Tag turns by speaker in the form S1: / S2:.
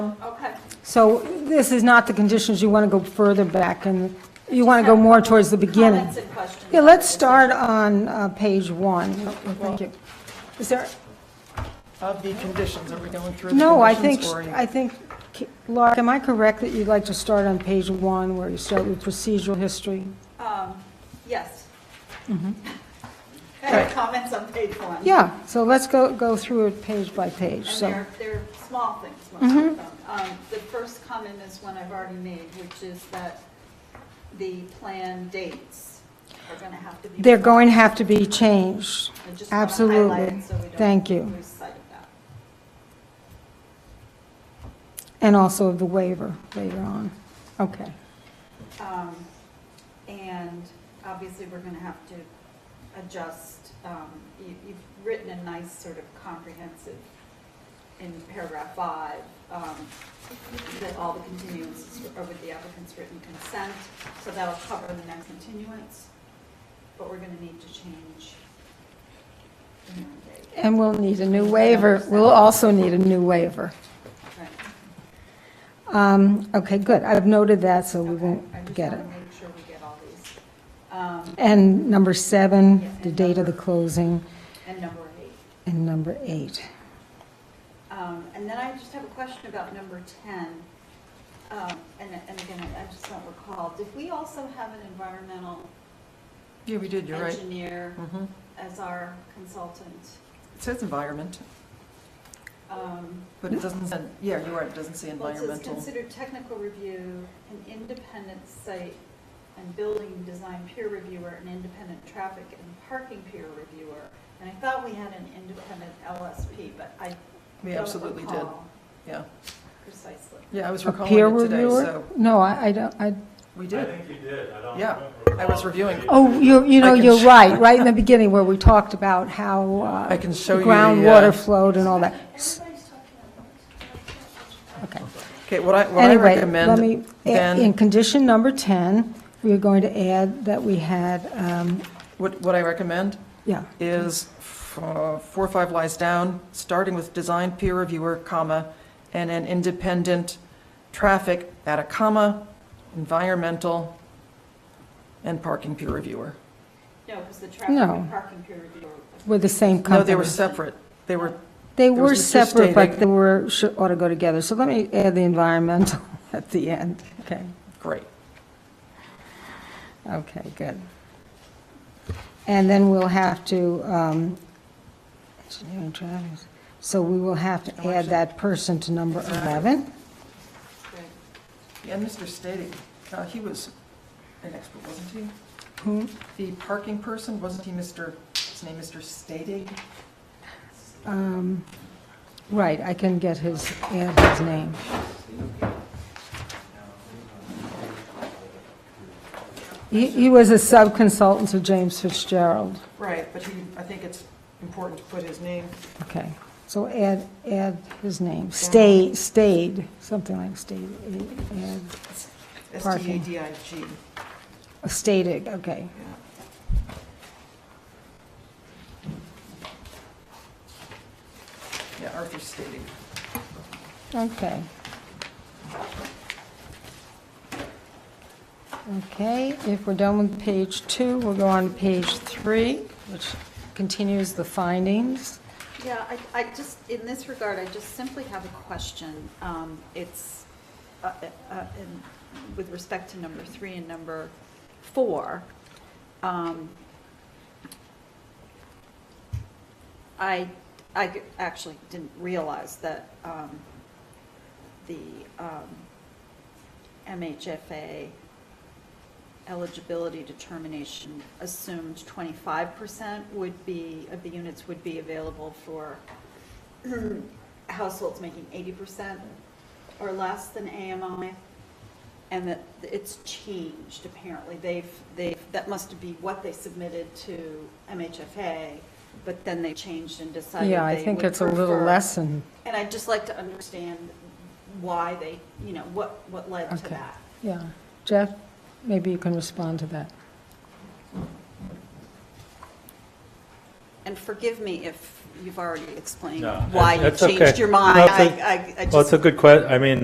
S1: So this is not the conditions, you want to go further back, and you want to go more towards the beginning.
S2: Comments and questions.
S1: Yeah, let's start on uh, page one. Oh, Thank you. Is there,
S3: Of the conditions, are we going through the
S1: no, I think,
S3: conditions for you?
S1: I think, Lark, am I correct that you'd like to start on page one, where you start with procedural history?
S2: Um, Yes. I have comments on page one.
S1: Mm-hmm. Yeah, so let's go, go through it page by page,
S2: And
S1: so. Mm-hmm.
S2: they're, they're small things. most of them. Um, The first comment is one I've already made, which is that the plan dates are going to have to be.
S1: They're going to have to be changed.
S2: I just wanna highlight
S1: Absolutely.
S2: it so we don't
S1: Thank you.
S2: lose sight of that.
S1: And also of the waiver later on. Okay.
S2: Um, And obviously, we're going to have to adjust, um, you- you've written a nice sort of comprehensive in paragraph five, um, that all the continuances are with the applicant's written consent, so that'll cover the next continuance, but we're going to need to change the mandate.
S1: And we'll need a new waiver. We'll also need a new waiver.
S2: Right.
S1: Um, Okay, good. I've noted that, so we
S2: Okay.
S1: won't get
S2: I
S1: it.
S2: just want to make sure we get all these. Um,
S1: And number
S2: Yeah,
S1: seven, the
S2: and
S1: date of the
S2: number-
S1: closing,
S2: And number eight.
S1: and number eight.
S2: Um, And then I just have a question about number 10. Um, And and again, I I just don't recall, did we also have an environmental
S3: Yeah, we did, you're right.
S2: engineer
S3: Mhm.
S2: as our consultant?
S3: It says environment,
S2: Um,
S3: but it doesn't, say- yeah, you're right, it doesn't say
S2: Well, it says
S3: environmental.
S2: consider technical review, an independent site and building design peer reviewer, an independent traffic and parking peer reviewer. And I thought we had an independent LSP, but I
S3: We
S2: don't
S3: absolutely did,
S2: recall
S3: yeah.
S2: precisely.
S3: Yeah, I was
S1: A
S3: recalling
S1: peer
S3: it today,
S1: reviewer?
S3: so
S1: No, I I don't, I,
S3: we
S4: I
S3: did.
S4: think you did, I don't.
S3: Yeah,
S4: remember.
S3: I was reviewing.
S1: oh, you, you know,
S3: I can
S1: you're
S3: sh-
S1: right, right in the beginning where we talked about how uh,
S3: I can show you the, uh,
S1: groundwater flowed and all that. S- Okay.
S3: Okay, what I, what I
S1: Anyway, let me,
S3: recommend
S1: in
S3: then,
S1: condition number 10, we're going to add that we had, um,
S3: what, what I recommend
S1: yeah,
S3: is f- uh, four or five lies down, starting with design peer reviewer, comma, and an independent traffic at a comma, environmental, and parking peer reviewer.
S2: No, because the traffic
S1: No.
S2: and parking peer reviewer.
S1: with the same company.
S3: No, they were separate. They were,
S1: They
S3: there
S1: were
S3: was just just
S1: separate, but
S3: stating-
S1: they were, should, ought to go together. So let me add the environmental at the end. Okay,
S3: great.
S1: okay, good. And then we'll have to, um, engineering traffic. so we will have to add that person to number 11.
S2: Right.
S3: And Mr. Stady, uh, he was an expert, wasn't
S1: Who?
S3: he? The parking person, wasn't he Mr., his name Mr. Stady?
S1: Um, Right, I can get his, add his name. He he was a sub-consultant to James Fitzgerald.
S3: Right, but he, I think it's important to put his name.
S1: Okay, so add, add his name. Stay, stayed, something like stayed, add, Parking.
S3: S-T-A-D-I-G.
S1: stated, okay.
S3: Yeah. Yeah, Arthur Stady.
S1: Okay. Okay, if we're done with page two, we'll go on to page three, which continues the findings.
S2: Yeah, I, I just, in this regard, I just simply have a question. Um, It's, uh, uh, uh, in- with respect to number three and number four, um, I, I g- actually didn't realize that um, the um, MHFA eligibility determination assumed 25% would be, of the units would be available for households making 80% or less than AMI, and that it's changed apparently. They've, they've, that must be what they submitted to MHFA, but then they changed and decided
S1: Yeah, I
S2: they
S1: think
S2: would
S1: it's a little
S2: prefer-
S1: less than,
S2: And I'd just like to understand why they, you know, what, what led to
S1: Okay.
S2: that.
S1: yeah. Jeff, maybe you can respond to that.
S2: And forgive me if you've already explained
S4: No,
S2: why you
S4: that's okay.
S2: changed your mind.
S4: No, it's
S2: I,
S4: a-
S2: I- I
S4: Well, it's
S2: just
S4: a good que, I mean,